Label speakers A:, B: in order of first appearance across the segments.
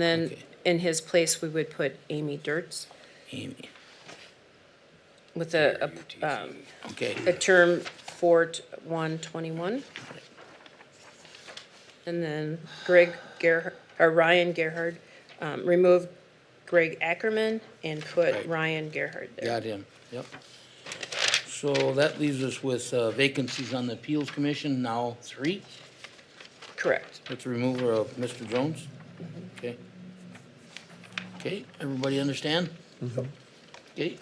A: Then
B: Okay.
A: in his place, we would put Amy Dirtz
B: Amy.
A: with a, a, um,
B: Okay,
A: a term for one twenty-one. And then Greg Gerhard, or Ryan Gerhard, um, remove Greg Ackerman and put
B: Right.
A: Ryan Gerhard there.
B: got him, yep. So that leaves us with uh, vacancies on the Appeals Commission, now three,
A: Correct.
B: with the removal of Mr. Jones. Okay. Okay, everybody understand? Okay.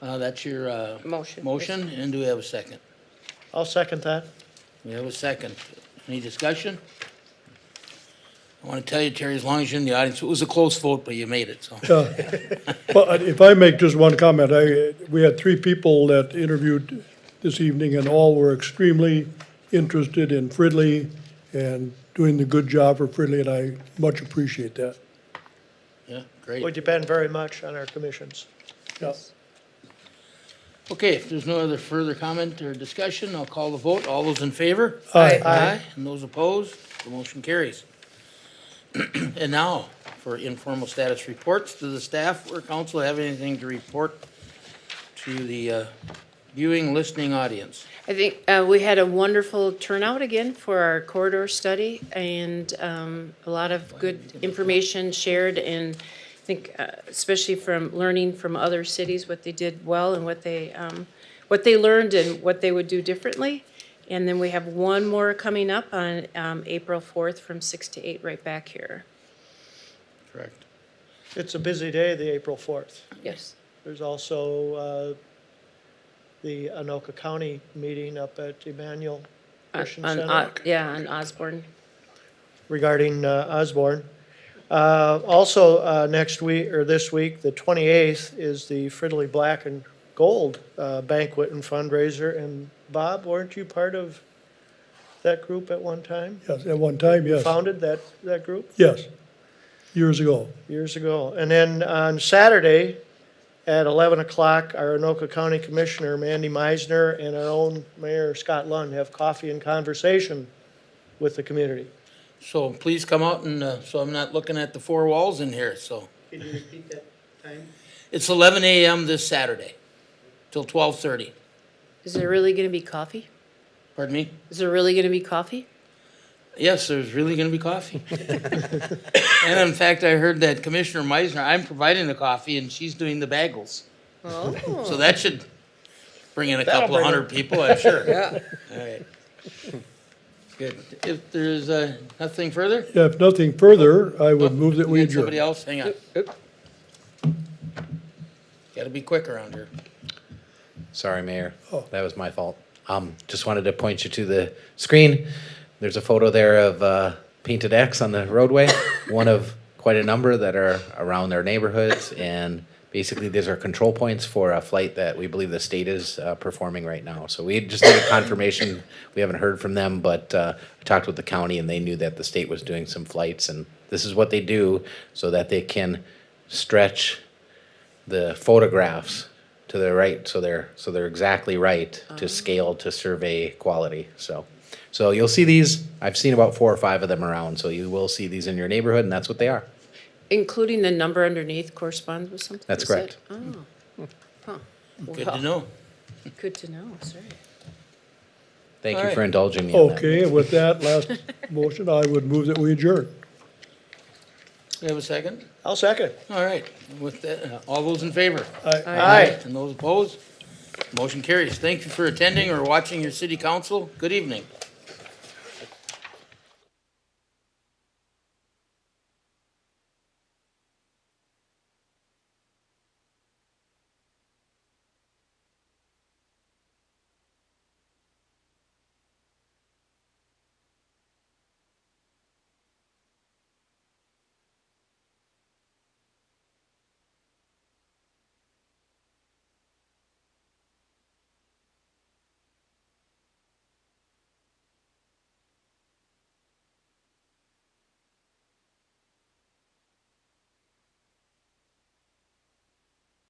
B: Uh, That's your uh,
A: Motion.
B: motion, and do we have a second?
C: I'll second that.
B: We have a second. Any discussion? I want to tell you, Terry, as long as you're in the audience, it was a close vote, but you made it, so.
D: But if I make just one comment, I, we had three people that interviewed this evening and all were extremely interested in Fridley and doing the good job for Fridley, and I much appreciate that.
B: Yeah,
C: We
B: great.
C: depend very much on our commissions.
D: Yeah.
B: Okay, if there's no other further comment or discussion, I'll call the vote. All those in favor?
D: Aye.
B: Aye. And those opposed? The motion carries. And now, for informal status reports. Do the staff or council have anything to report to the uh, viewing, listening audience?
A: I think, uh, we had a wonderful turnout again for our corridor study and, um, a lot of good information shared and I think, uh, especially from learning from other cities, what they did well and what they, um, what they learned and what they would do differently. And then we have one more coming up on, um, April fourth from six to eight right back here.
B: Correct.
C: It's a busy day, the April 4th.
A: Yes.
C: There's also uh, the Anoka County meeting up at Emmanuel Christian
A: Uh, On,
C: Center
A: O- yeah, on Osborne.
C: regarding uh, Osborne. Uh, Also, uh, next week, or this week, the 28th, is the Fridley Black and Gold uh, banquet and fundraiser. And Bob, weren't you part of that group at one time?
D: Yes, at one time, yes,
C: Founded that, that group?
D: yes, years ago.
C: years ago. And then on Saturday at 11 o'clock, our Anoka County Commissioner Mandy Meisner and our own Mayor Scott Lund have coffee and conversation with the community.
B: So please come out and, uh, so I'm not looking at the four walls in here, so.
E: Can you repeat that time?
B: It's 11 a.m. this Saturday till 12:30.
A: Is there really gonna be coffee?
B: Pardon me?
A: Is there really gonna be coffee?
B: Yes, there's really going to be coffee. and in fact, I heard that Commissioner Meisner, I'm providing the coffee and she's doing the bagels. So that should bring in a couple of hundred people, I'm sure. Yeah. All right. Good. If there's uh, nothing further,
D: If nothing further, I would move that
B: Oh, we
D: we
B: had somebody
D: adjourn.
B: else, hang on. Got to be quick around here.
E: Sorry, Mayor. That was my fault. Um, just wanted to point you to the screen. There's a photo there of uh, painted X on the roadway, one of quite a number that are around their neighborhoods. And basically, these are control points for a flight that we believe the state is uh, performing right now. So we just need a confirmation. We haven't heard from them, but uh, I talked with the county and they knew that the state was doing some flights. And this is what they do so that they can stretch the photographs to the right, so they're, so they're exactly right
B: Oh.
E: to scale to survey quality, so. So you'll see these, I've seen about four or five of them around, so you will see these in your neighborhood, and that's what they are.
A: Including the number underneath corresponds with something?
E: That's
A: Is that-
E: correct.
A: Oh, huh.
B: Hmm. Good
A: Well,
B: to know.
A: Good to know, sorry.
E: Thank you
B: All
E: for
B: right.
E: indulging me in that.
D: Okay, with that last motion, I would move that we adjourn.
B: We have a second?
C: I'll second.
B: All right. With that, uh, all those in favor?
D: I-
C: Aye.
B: And those opposed? Motion carries. Thank you for attending or watching your city council. Good evening.